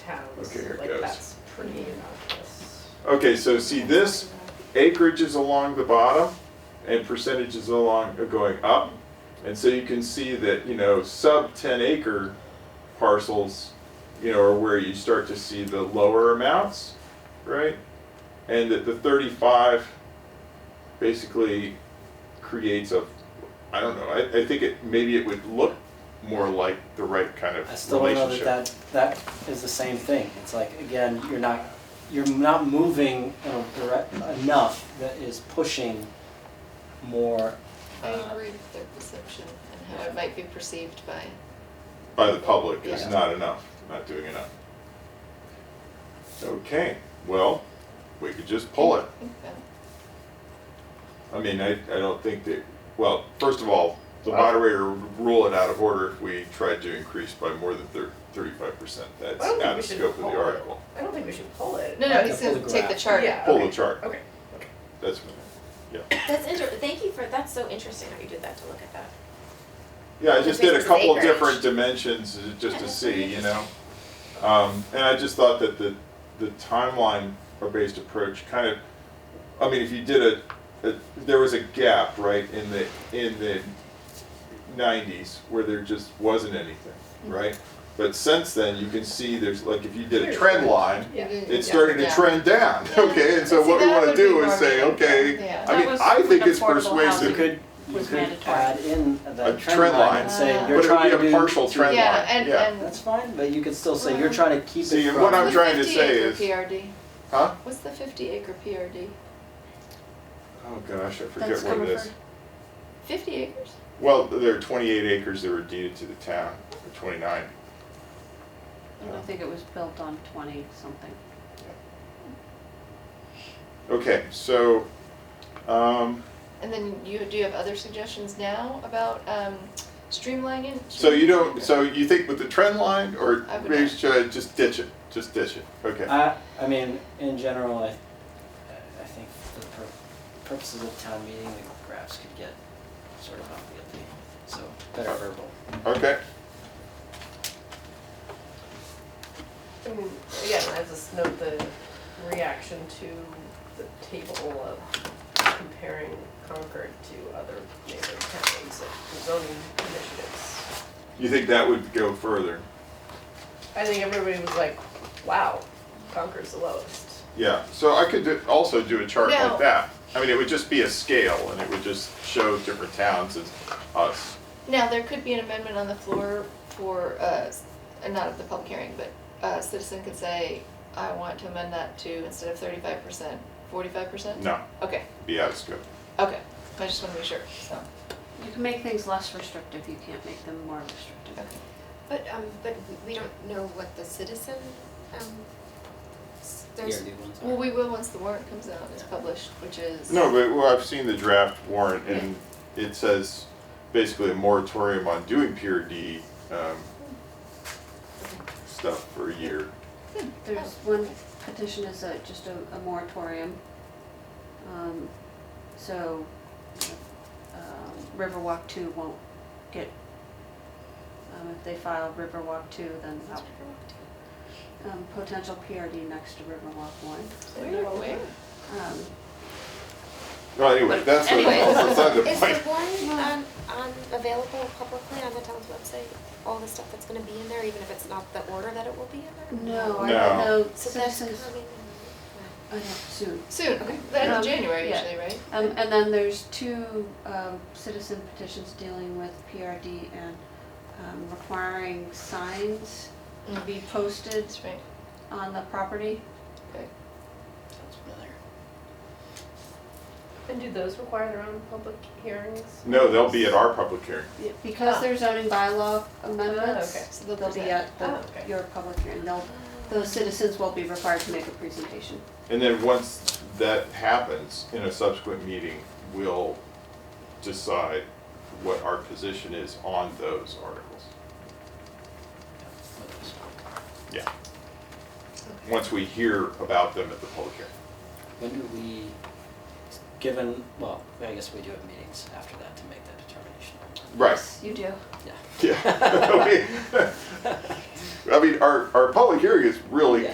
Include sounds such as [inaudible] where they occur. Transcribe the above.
Okay, here it Like, goes. That's pretty innocuous. Okay, so see this acreage is along the bottom and percentages along are going up. And so you can see that, you know, sub 10 acre parcels, you know, are where you start to see the lower amounts, right? And that the 35 basically creates a, I don't know, I, I think it maybe it would look more like the right kind of I still don't know relationship. that, that that is the same thing. It's like again, you're not you're not moving in a direct, enough that is pushing more. I uh, agree with their perception and how it might be perceived by, by the public is Yeah. not enough, not doing enough. Okay, well, we could just pull it. I think that I mean, I, I don't think that, well, first of all, the moderator would rule it out of order if we tried to increase by more than thir- thirty-five percent. That's I don't think out we of should scope of the pull it. article. I don't think we should pull it. No, I no, can he's pull gonna the take the graph. chart. Yeah. Pull the okay. chart, Okay, okay. that's, yeah. That's inter, thank you for, that's so interesting how you did that to look at that. Yeah, I just did a Because couple of acreage. different dimensions uh, just to Yeah. see, you know? Um, and I just thought that the, the timeline or based approach kind of, I mean, if you did a, a, there was a gap, right, in the, in the nineties where there just wasn't anything, right? But since then, you can see there's, like, if you did a Here's trend the- line, Yeah. Mhm. it's Yeah, starting to yeah. trend down, Yeah. okay? And so See, what we that wanna would be do more is say, meaningful. okay, Yeah. I That mean, was I when think it's affordable housing You persuasive. could you Was could mandatory. add in the A trend line. and say Ah. you're trying But it would be a to- partial trend line, Yeah, Uh-huh. yeah. and, That's and. fine, but you could still say you're trying to keep See, it and from. what I'm trying to 50 say acre is- PRD, Huh? what's the fifty acre PRD? Oh, gosh, I forget That's what it covered is. for- Fifty acres? Well, there are twenty-eight acres that were deeded to the town, or twenty-nine. And I think it was built on twenty something. Okay, so, um, And then you, do you have other suggestions now about, um, streamlining? so you don't, so you think with the trend line, or I would maybe not. should I just ditch it, just ditch it, okay? I I mean, in general, I I think for the pur- purposes of town meeting, the graphs could get sort of unwieldy, so better verbal. Okay, I mean, again, I just note the reaction to the table of comparing Concord to other neighboring counties and zoning initiatives. you think that would go further? I think everybody was like, wow, Concord's the lowest. Yeah, so I could do, also do a chart No. like that. I mean, it would just be a scale, and it would just show different towns as us. Now, there could be an amendment on the floor for, uh, s- uh, not at the public hearing, but a citizen could say, I want to amend that to, instead of thirty-five percent, forty-five percent? No, Okay, be out of scope. okay, I just wanna be sure, so, You can make things less restrictive, you can't make them more restrictive. okay. But, um, but we- we don't know what the citizen, um, s- there's, PRD ones are- Well, we will once the warrant comes out, it's published, which is. No, but, well, I've seen the draft warrant, and it says basically a moratorium on doing PRD, um, stuff for a year. There's one petition is a, just a, a moratorium. Um, so, um, Riverwalk two won't get, um, if they file Riverwalk two, then that- um, potential PRD next to Riverwalk one. Where, where? Um, Well, anyway, But that's a- anyway. that's beside [laughs] the is point. the one on, on, available publicly on the town's website? All the stuff that's gonna be in there, even if it's not the order that it will be in there? no, I No. don't know, So that's citizens, coming. I know, soon. Soon, the end Um, of January yeah. usually, right? Um, and then there's two, um, citizen petitions dealing with PRD and, um, requiring signs to Mm. be posted That's right, on the property. okay. Sounds better. And do those require their own public hearings? No, they'll be at our public hearing. Because Ah. they're zoning bylaw amendments. Ah, okay. So they'll They'll be present. at Ah, the, okay. your public hearing, they'll, those citizens will be required to make a presentation. And then once that happens, in a subsequent meeting, we'll decide what our position is on those articles. Yeah. Once we hear about them at the public hearing. When do we, given, well, I guess we do have meetings after that to make that determination. Right. Yes, You do. Yeah. [laughs] Yeah. I mean, I mean, our, our public hearing is really Yeah.